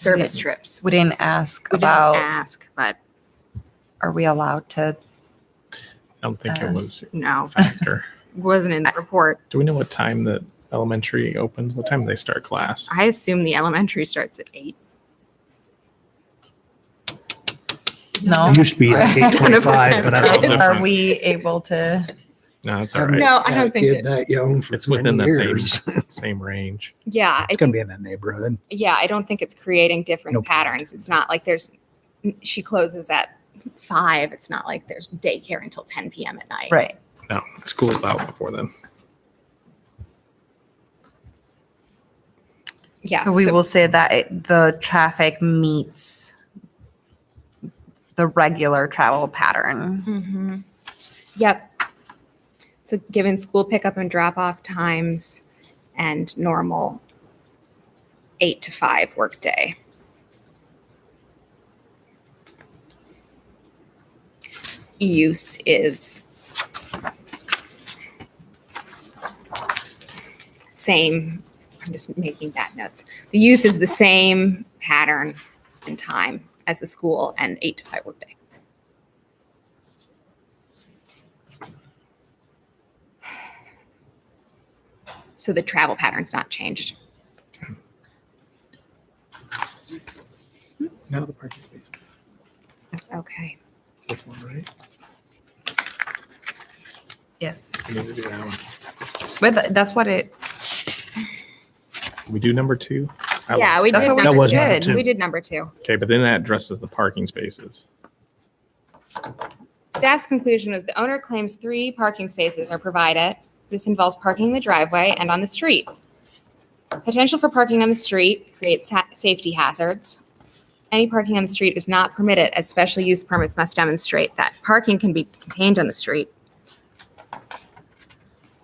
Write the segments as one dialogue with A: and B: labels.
A: service trips.
B: We didn't ask
A: We didn't
B: about,
A: ask, but
B: are we allowed to?
C: I don't think
A: Uh,
C: it
B: Um,
C: was a
A: no,
C: factor.
A: wasn't in the report.
C: Do we know what time the elementary opens? What time do they start class?
A: I assume the elementary starts at eight.
B: No?
D: It used to be like eight twenty-five, but I don't know.
C: Different.
B: Are we able to?
C: No, it's all
D: Haven't
C: right.
A: No, I
D: had a
A: don't think
D: kid
A: it-
D: That young for
C: It's within
D: many
C: the same
D: years.
C: same range.
A: Yeah, I
D: It's gonna be in that neighborhood.
A: yeah, I don't think it's creating different
D: Nope.
A: patterns. It's not like there's mm, she closes at five. It's not like there's daycare until ten p.m. at night.
B: Right.
C: No, school's out before then.
A: Yeah.
B: So we
A: so-
B: will say that it- the traffic meets the regular travel pattern.
A: Mhm. Yep. So given school pickup and drop off times and normal eight to five workday. Use is same. I'm just making that notes. The use is the same pattern and time as the school and eight to five workday. So the travel pattern's not changed.
C: Now the parking space.
A: Okay.
C: This one, right?
B: Yes.
C: We need to do that one.
B: But tha- that's what it,
C: Can We do number two. I
A: Yeah,
C: lost
A: we
C: track.
A: did
B: That's what we
A: number
D: just That was
A: two.
D: number
A: We did number two.
C: Okay, but then that addresses the parking spaces.
A: Staff's conclusion was the owner claims three parking spaces are provided. This involves parking in the driveway and on the street. Potential for parking on the street creates ha- safety hazards. Any parking on the street is not permitted as special use permits must demonstrate that parking can be contained on the street.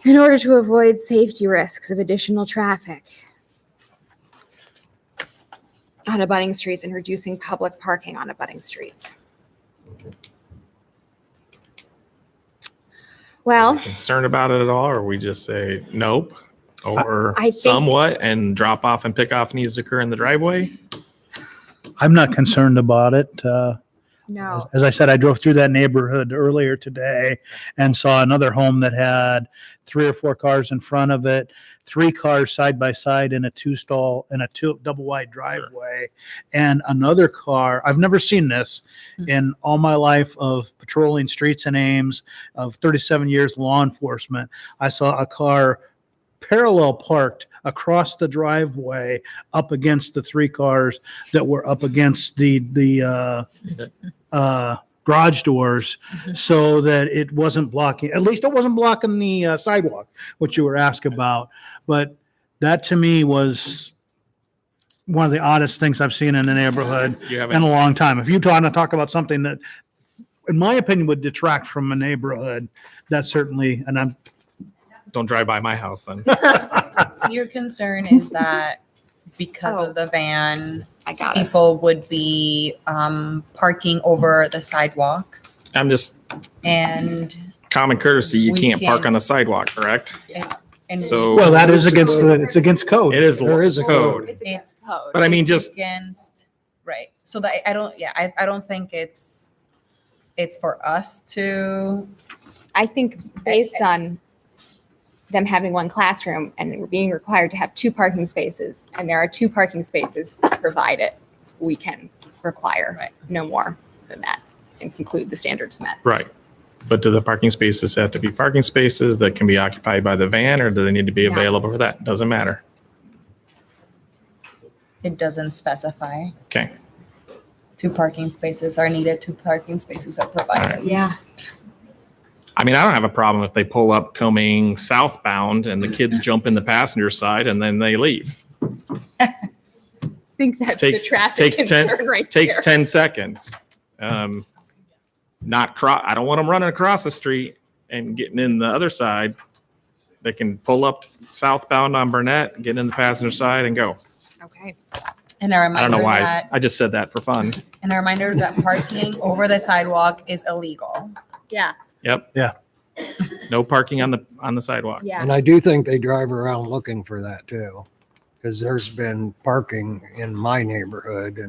A: In order to avoid safety risks of additional traffic on abutting streets and reducing public parking on abutting streets. Well.
C: Concerned about it at all, or we just say nope, or
A: I think-
C: somewhat, and drop off and pick off needs to occur in the driveway?
D: I'm not concerned about it. Uh, as,
A: No,
D: as I said, I drove through that neighborhood earlier today and saw another home that had three or four cars in front of it, three cars side by side in a two stall in a two double wide driveway, and another car. I've never seen this
B: Hmm.
D: in all my life of patrolling streets and Ames of 37 years law enforcement. I saw a car parallel parked across the driveway up against the three cars that were up against the the uh, uh, garage doors so that it wasn't blocking, at least it wasn't blocking the uh, sidewalk, which you were asked about. But that to me was one of the oddest things I've seen in the neighborhood
C: You
D: in
C: haven't.
D: a long time. If you want to talk about something that, in my opinion, would detract from a neighborhood, that certainly, and I'm,
C: Don't drive by my house then.
B: your concern is that because
A: Oh.
B: of the van,
A: I got it.
B: people would be um, parking over the sidewalk
C: I'm just
B: and.
C: common courtesy. You
B: We
C: can't park
B: can-
C: on the sidewalk, correct?
B: and
C: So-
D: well, that is against, the it's against code.
C: It is
D: There is a code.
A: It's against code.
C: But I mean,
B: it's
C: just
B: against right. So that I- I don't. Yeah, I, I don't think it's it's for us to.
A: I think based on them having one classroom and being required to have two parking spaces, and there are two parking spaces provided, we can require
B: Right.
A: no more than that and conclude the standards met.
C: Right. But do the parking spaces have to be parking spaces that can be occupied by the van or do they need to be
A: No.
C: available for that? Doesn't matter.
B: It doesn't specify.
C: Okay.
B: Two parking spaces are needed. Two parking spaces are provided.
A: Yeah.
C: I mean, I don't have a problem if they pull up coming southbound and the kids jump in the passenger side and then they leave.
A: I think that's the
C: Takes-
A: traffic
C: takes ten-
A: concern right there.
C: Takes 10 seconds. Um, not cro, I don't want them running across the street and getting in the other side. They can pull up southbound on Burnett, get in the passenger side and go.
A: Okay.
B: And a
C: I don't know
B: reminder
C: why.
B: that
C: I just said that for fun.
B: and a reminder that parking over the sidewalk is illegal.
A: Yeah,
C: Yep.
D: Yeah.
C: No parking on the, on the sidewalk.
A: yeah.
E: And I do think they drive around looking for that too. 'cause because there's been parking in my neighborhood